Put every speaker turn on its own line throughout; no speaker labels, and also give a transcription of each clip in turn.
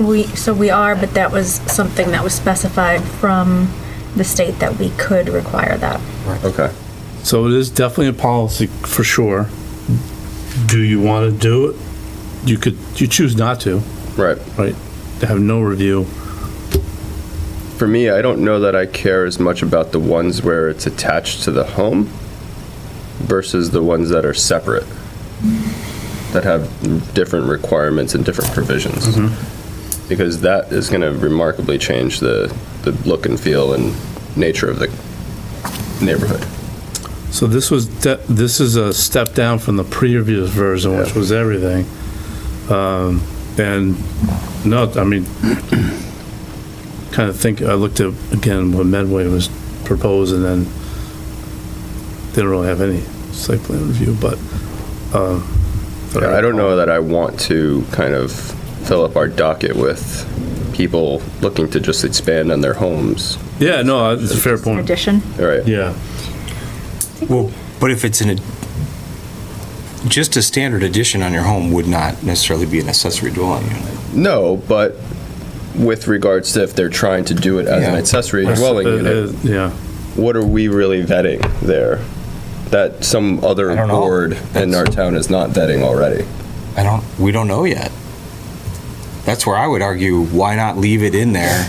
We, so we are, but that was something that was specified from the state that we could require that.
Okay.
So it is definitely a policy for sure. Do you want to do it? You could, you choose not to,
Right.
right? To have no review.
For me, I don't know that I care as much about the ones where it's attached to the home versus the ones that are separate, that have different requirements and different provisions. Because that is going to remarkably change the, the look and feel and nature of the neighborhood.
So this was, de- this is a step down from the previous version, which
Yeah.
was everything. Um, And no, I mean, kind of think, I looked at, again, what Medway was proposed and then they don't really have any site plan review, but. um, but
Yeah, I don't know that I want to kind of fill up our docket with people looking to just expand on their homes.
Yeah, no, it's a fair point.
Addition?
All right.
Yeah.
Well, but if it's an, ad- just a standard addition on your home would not necessarily be an accessory dwelling unit.
No, but with regards to if they're trying to do it as an
Yeah.
accessory
That's-
dwelling
uh,
unit,
uh, Yeah,
what are we really vetting there? That some other
I don't know.
board in our town is not vetting already.
I don't, we don't know yet. That's where I would argue, why not leave it in there?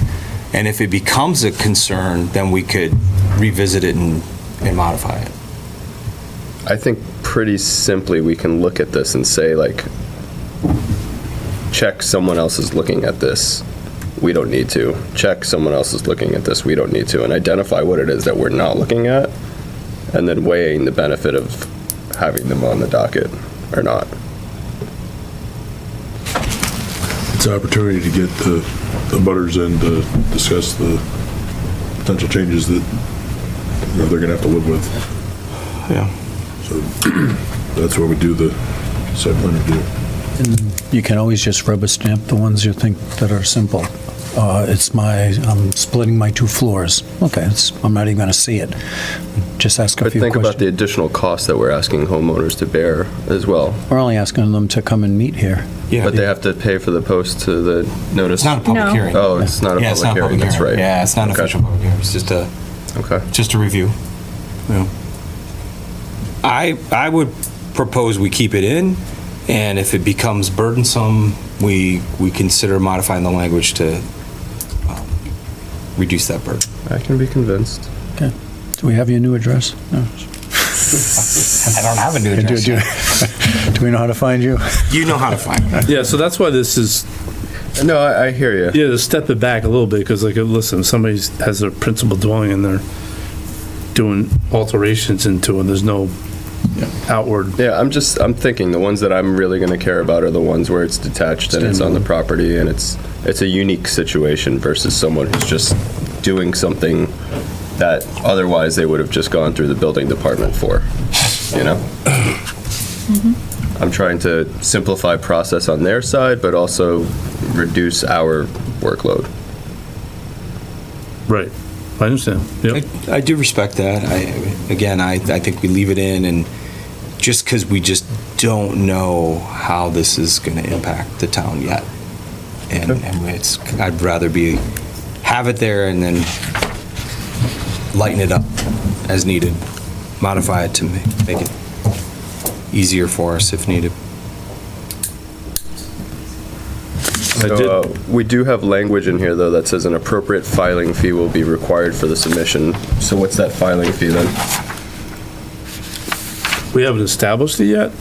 And if it becomes a concern, then we could revisit it and, and modify it.
I think pretty simply, we can look at this and say like, check, someone else is looking at this, we don't need to. Check, someone else is looking at this, we don't need to, and identify what it is that we're not looking at, and then weighing the benefit of having them on the docket or not.
It's an opportunity to get the, the butters in to discuss the potential changes that, you know, they're gonna have to live with.
Yeah.
So that's where we do the site plan review.
You can always just rubber stamp the ones you think that are simple. Uh, It's my, I'm splitting my two floors. Okay, it's, I'm not even going to see it. Just ask a
But
few
think about the
questions.
additional costs that we're asking homeowners to bear as well.
We're only asking them to come and meet here.
Yeah.
But they have to pay for the post to the notice.
It's not a public
No.
hearing.
Oh, it's not a
Yeah, it's
public
not a
hearing, that's right.
Yeah, it's not an
Okay.
official public hearing, it's just a.
Okay.
just a review. Yeah. I, I would propose we keep it in, and if it becomes burdensome, we, we consider modifying the language to um, reduce that burden.
I can be convinced.
Do we have your new address? No.
I don't have a new
Do- Do do we know how to find you?
You know how to find me.
yeah, so that's why this is,
No, I, I hear you.
yeah, to step it back a little bit, because like, listen, if somebody has their principal dwelling and they're doing alterations into it, there's no outward,
Yeah, I'm just, I'm thinking the ones that I'm really gonna care about are the ones where it's detached and it's on the property and it's, it's a unique situation versus someone who's just doing something that otherwise they would have just gone through the building department for, you know? I'm trying to simplify process on their side, but also reduce our workload.
right, I understand, yep.
I- I do respect that. I, again, I, I think we leave it in, and just because we just don't know how this is going to impact the town yet. And, and it's, I'd rather be, have it there and then lighten it up as needed, modify it to ma- make it easier for us if needed.
I
So,
did-
uh, We do have language in here, though, that says an appropriate filing fee will be required for the submission. So what's that filing fee then?
We haven't established it yet?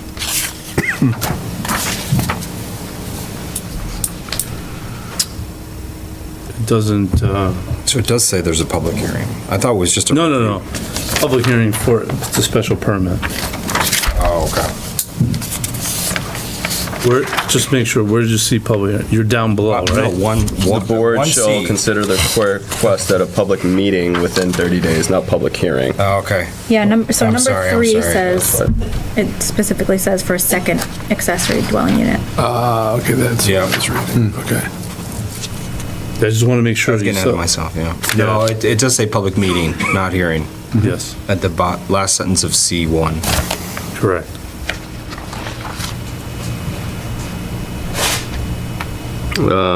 It Doesn't, uh,
So it does say there's a public hearing. I thought it was just a.
no, no, no, public hearing for, it's a special permit.
Oh, okay.
Where, just make sure, where did you see public, you're down below,
No,
right?
one,
The
one.
board
one
shall
C.
consider the que- request at a public meeting within 30 days, not public hearing.
Oh, okay.
Yeah, number, so
I'm
number
sorry, I'm
three
sorry.
says, it specifically says for a second accessory dwelling unit.
Ah, okay, that's.
Yeah.
That's right, okay.
I just want to make sure.
I was
you
getting
saw-
ahead of myself, yeah.
Yeah.
No, it, it does say public meeting, not hearing,
Yes,
at the bo- last sentence of C1.
correct.